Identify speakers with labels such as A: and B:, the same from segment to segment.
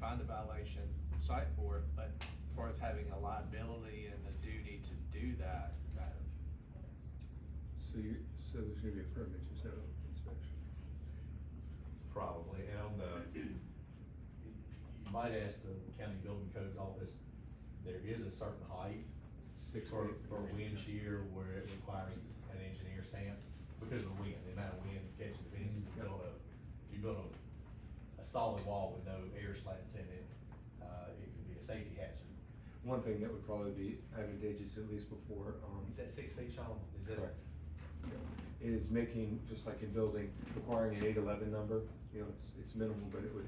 A: find a violation, cite for it, but as far as having a liability and the duty to do that, that,
B: So you, so there's gonna be a permit, just no inspection.
C: Probably, and on the, you might ask the county building codes office, there is a certain height
B: Six
C: for,
B: feet.
C: for wind shear where it requires an engineer stamp because of the wind, the amount of wind catching the fence. If you build a, if you build a, a solid wall with no air slats in it, uh, it could be a safety hazard.
B: One thing that would probably be advantageous, at least before, um,
C: Is that six feet, Sean? Is that?
B: Correct. is making, just like in building, requiring an eight eleven number, you know, it's, it's minimal, but it would,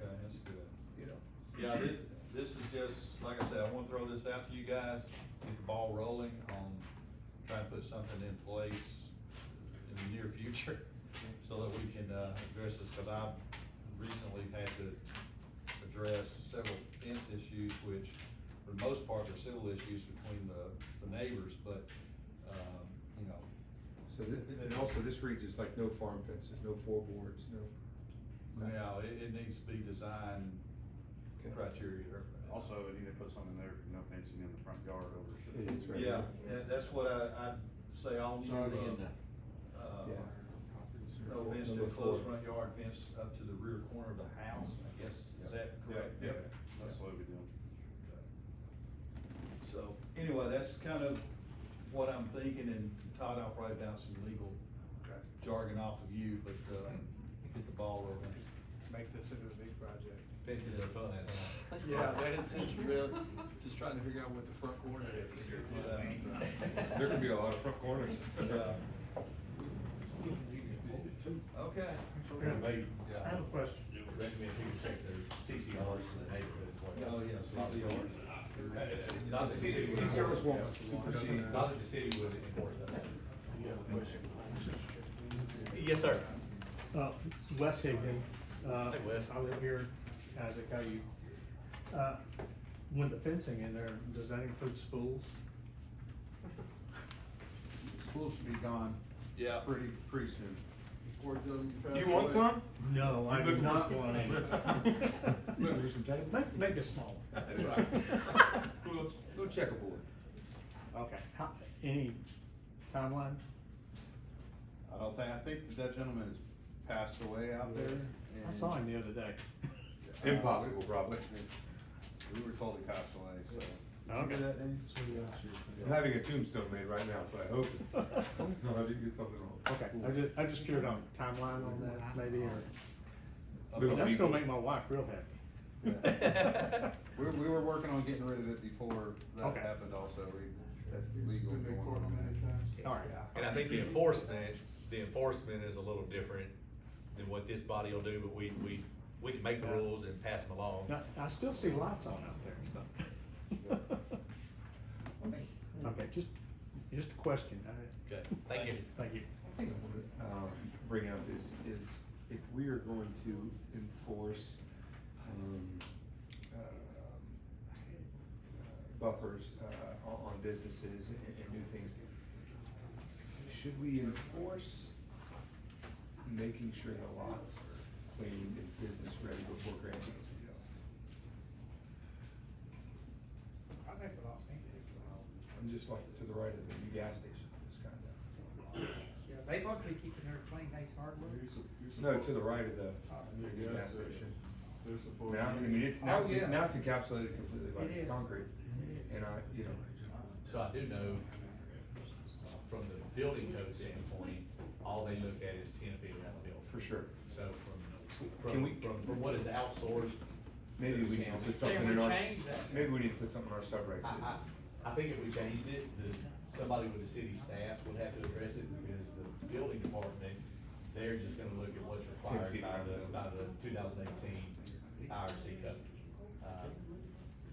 D: Okay, that's good.
B: you know.
D: Yeah, this, this is just, like I said, I wanna throw this out to you guys, get the ball rolling on trying to put something in place in the near future, so that we can, uh, address this, cause I've recently had to address several fence issues, which for the most part are civil issues between the, the neighbors, but, um, you know,
B: So thi- and also this reads is like no farm fences, no floorboards, no.
D: now, it, it needs to be designed criteria.
E: Also, it either put something there, no fencing in the front yard over.
B: It is, right.
D: Yeah, and that's what I, I'd say on to, uh, uh,
B: Yeah.
D: no fence to
B: Number
D: a close
B: four.
D: front yard fence up to the rear corner of the house, I guess, is that correct?
E: Yeah, that's what we do.
D: So, anyway, that's kind of what I'm thinking, and Todd, I'll probably bounce some legal
A: okay,
D: jargon off of you, but, uh, get the ball rolling.
A: make this into a big project.
C: Fences are fun, I think.
A: Yeah, that it's, it's real, just trying to figure out what the front corner is.
C: Yeah.
B: There could be a lot of front corners.
D: Yeah. Okay.
C: Apparently,
F: I have a question.
C: recommend people check their CCRs in the neighborhood. as well.
D: Oh, yeah, CCR.
C: Uh, uh, Not the city. would-
B: CCRs won't supersede.
C: Not that the city would enforce that.
G: Yes, sir.
F: Uh, Wes Higdon, uh,
C: Hey, Wes.
F: I live here, Isaac, how you? Uh, When the fencing in there, does that include schools?
E: School should be gone
D: Yeah.
E: pretty, pretty soon.
G: You want some?
F: No, I
G: Looking
F: do
G: for
F: not
G: some-
F: want any.
B: Look, there's some tape.
F: Make, make it smaller.
B: That's right. Go- Go checkerboard.
F: Okay. How, any timeline?
E: I don't think, I think that that gentleman has passed away out there.
F: I
E: and-
F: saw him the other day.
E: Uh,
B: Impossible, probably.
E: We were told he passed away, so. Did you
F: Okay.
E: do that, Danny?
B: I'm having a tombstone made right now, so I hope, no, I didn't get something wrong.
F: Okay, I just, I just curious on timeline on that, maybe, or,
B: Little
F: that's
B: people.
F: gonna make my wife real
E: Yeah.
F: happy.
E: We, we were working on getting rid of it before that
F: Okay.
E: happened also, we, that's legal going on
F: All right.
C: And I think the enforcement, the enforcement is a little different than what this body will do, but we, we, we can make the rules and pass them along.
F: Now, I still see lights on out there, so. Okay, just, just a question. I-
C: Okay, thank you.
F: Thank you.
B: thing I want to um, bring up is, is if we are going to enforce um, uh, buffers uh, on on businesses and and new things, should we enforce making sure the lots are clean and business ready before granting?
F: I think the last thing
B: I'm just like to the right of the new gas station, this kind of.
H: Yeah, they both be keeping their plain nice hardwood.
B: No, to the right of the new gas station. Now, I mean, it's, now it's, now it's encapsulated completely
H: Oh, It
B: by
H: is.
B: concrete,
H: It is.
B: and I, you know,
C: So I do know from the building code standpoint, all they look at is ten feet around the building.
B: for sure.
C: So from,
B: Can
C: from,
B: we-
C: from, from what is outsourced,
B: Maybe we need to put something
H: we
B: in our,
H: change that? Uh-huh.
B: maybe we need to put something in our subregs.
C: I, I, I think if we changed it, the, somebody with the city staff would have to address it because the building department, they're just gonna look at what's required by the, by the two thousand eighteen IRC code. Uh,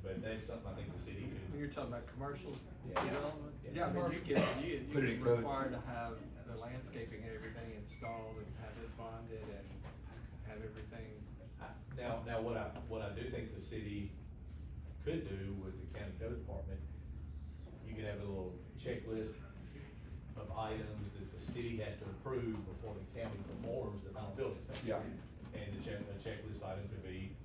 C: But that's something I think the city could,
A: You're talking about commercial
C: Yeah.
A: development?
C: Yeah.
A: Yeah, I mean, you can, you, you
B: Put it in
A: can
B: codes.
A: require to have the landscaping and everything installed and have it bonded and have everything.
C: I- now, now what I, what I do think the city could do with the county code department, you could have a little checklist of items that the city has to approve before the county performs the final building inspection.
B: Yeah.
C: And the check, the checklist item could be